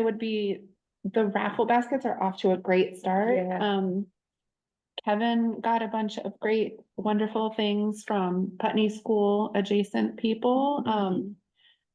would be, the raffle baskets are off to a great start. Yeah. Um, Kevin got a bunch of great, wonderful things from Putney School adjacent people. Um,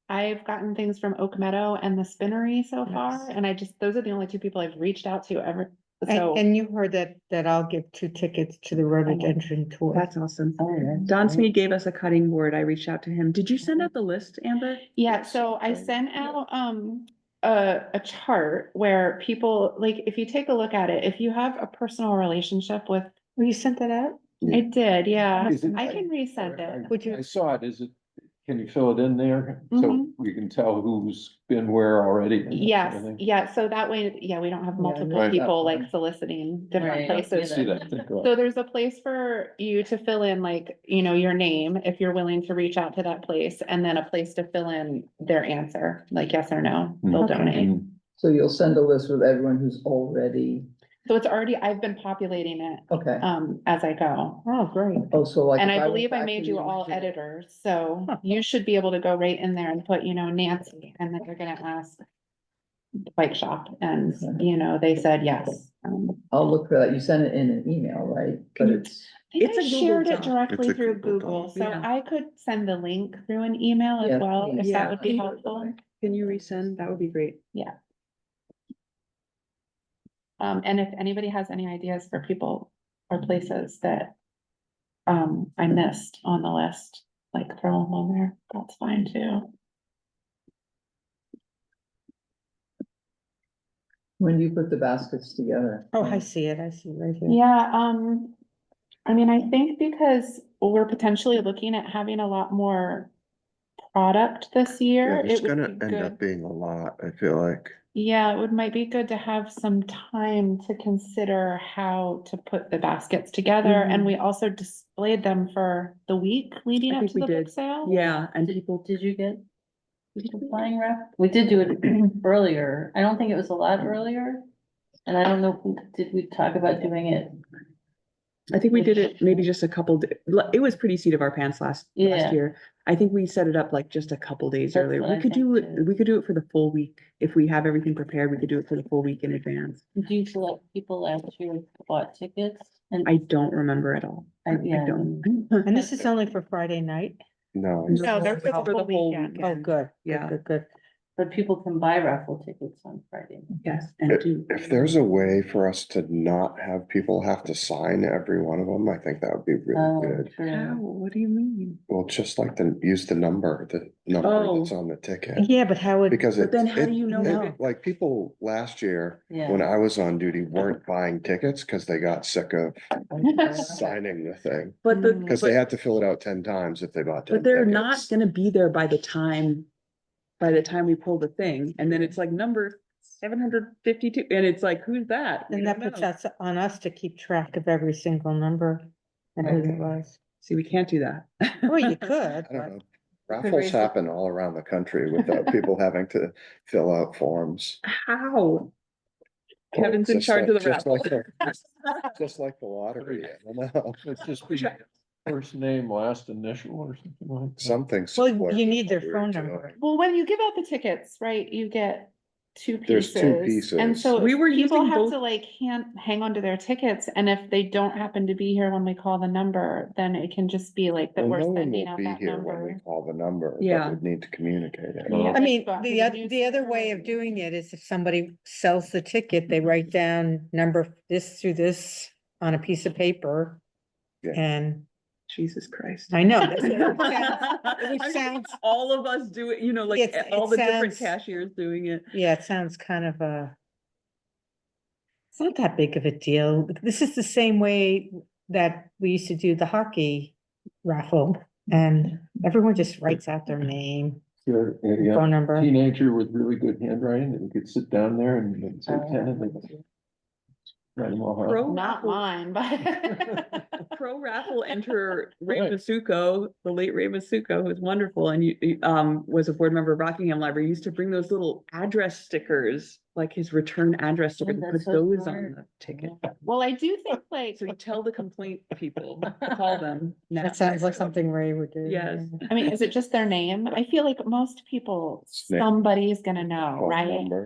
I've gotten things from Oak Meadow and the Spinnery so far, Nice. and I just, those are the only two people I've reached out to ever, so. And, and you heard that, that I'll give two tickets to the rhododendron tour. That's awesome. yeah. Don Smee gave us a cutting board. I reached out to him. Did you send out the list, Amber? Yeah, Yes, so I um, sent yeah. out, um, a, a chart where people, like, if you take a look at it, if you have a personal relationship with, oh, Well, you sent that out? I did, yeah. Is it- I can resend it. Would you- I saw it, is it, can you fill it in there? So Mhm. we can tell who's been where already? and that sort of Yes, thing? yeah, so that way, yeah, we don't have Yeah, multiple Right. people like soliciting different Right. Don't do places. See that, think about it. So there's a place for you to fill in like, you know, your name, if you're willing to reach out to that place, and then a place to fill in their answer, like yes or no, they'll Okay. donate. Mm. So you'll send a list with everyone who's already, So it's already, I've been populating it okay. um as I go. Oh, great. Oh, so like. And if I went believe I back made to you the all original- editors, so Huh. you should be able to go right in there and put, you know, Nancy, and then you're gonna ask. the Bike shop, and you know, they said yes. Um, I'll look for that. You sent it in an email, right? But it's, I think It's I a Google shared it Doc. directly It's a through Google Doc. Google, so Yeah. I could send the link through an email Yeah, as well, if please. that Yeah. would be helpful. Can you resend? That would be great. Um, and if anybody has any ideas for people or places that. Um, I missed on the list, like throw them on there, that's fine too. when do you put the baskets together? Oh, I see it. I see it right here. Yeah, um, I mean, I think because we're potentially looking at having a lot more product this year. Yeah, it's it would gonna be end good- up being a lot, I feel like. Yeah, it would might be good to have some time to consider how to put the baskets together, and Mhm. we also displayed them for the week leading I up think to we the book did. sale. Yeah, and Did, did you get? the Flying rep? We did do it earlier. I don't think it was a lot earlier. And I don't know, if we- did we talk about doing it? I think we did it maybe just a couple, d- l- it was pretty seat of our pants last, Yeah. last year. I think we set it up like just a couple days That's earlier. what We I could do, think, it. too. we could do it for the full week. If we have everything prepared, we could do it for the full week in advance. Do you feel like people last year bought tickets? And I don't remember at all. I I yeah. don't. And this is only for Friday night? No, No, No, they're for the for the whole whole weekend. Oh, weekend. good. Yeah. Yeah, good, good. But people can buy raffle tickets on Friday. Yes, and do. if there's a way for us to not have people have to sign every one of them, I think that would be Oh, really good. How? true. What do you mean? Well, just like the, use the number, the number that's Oh. on the ticket. Yeah, but how would? Because But it, then how do it, you know? No. who- it- like people last year, when Yeah. I was on duty, weren't buying tickets because they got sick of signing the thing. But the. Because they but- had to fill it out ten times if they bought ten But they're not tickets. gonna be there by the time, by the time we pull the thing, and then it's like number seven hundred fifty-two, and it's like, who's that? We Then that don't puts know. us on us to keep track of every single number and who it Okay. was. See, we can't do that. Well, you could, but. I don't know. could Raffles raise the- happen all around the country without people having to fill out forms. How? Well, Kevin's in just charge of like- the just like raffle. the- Just like the lottery, I don't know, It's just be Sure. first name, last initial or something like that. something. Well, similar you to need what their we were phone doing. number. Well, when you give out the tickets, right, you get two There's pieces. two And pieces. so We were people using have both- to like hand, hang on to their tickets, and if they don't happen to be here when we call the number, then it can just be like that Well, we're no one sending will out be that here when we number. call the number, Yeah. but we'd need to communicate it. Yeah. I mean, Go out to the the other, the other way of newspaper. doing it is if somebody sells the ticket, they write down number this through this on a piece of paper. Yeah. And Jesus Christ. I know. that's- I mean, sounds- All of us do it, you know, like It's- all it the different sounds- cashiers doing it. Yeah, it sounds kind of uh It's not that big of a deal. This is the same way that we used to do the hockey raffle. And everyone just writes out their name, You're- yeah, phone number. Teenager with really good handwriting, that we could sit down there and they'd say ten and they'd Oh. write them all out. Pro Not raffle- mine, but. pro raffle enter Ray Right. Masuko, the late Ray Masuko, who's wonderful and you- you, um, was a board member of Rockingham Library, He used to bring those little address stickers, like his return address sticker, Oh, and put that's so those on smart. the ticket. Well, I do think like, So you tell the complaint people, call them. now. That sounds like something Ray would do. Yes. yeah. I mean, is it just their name? I feel like most people, Snake. somebody's gonna know, Phone right? number.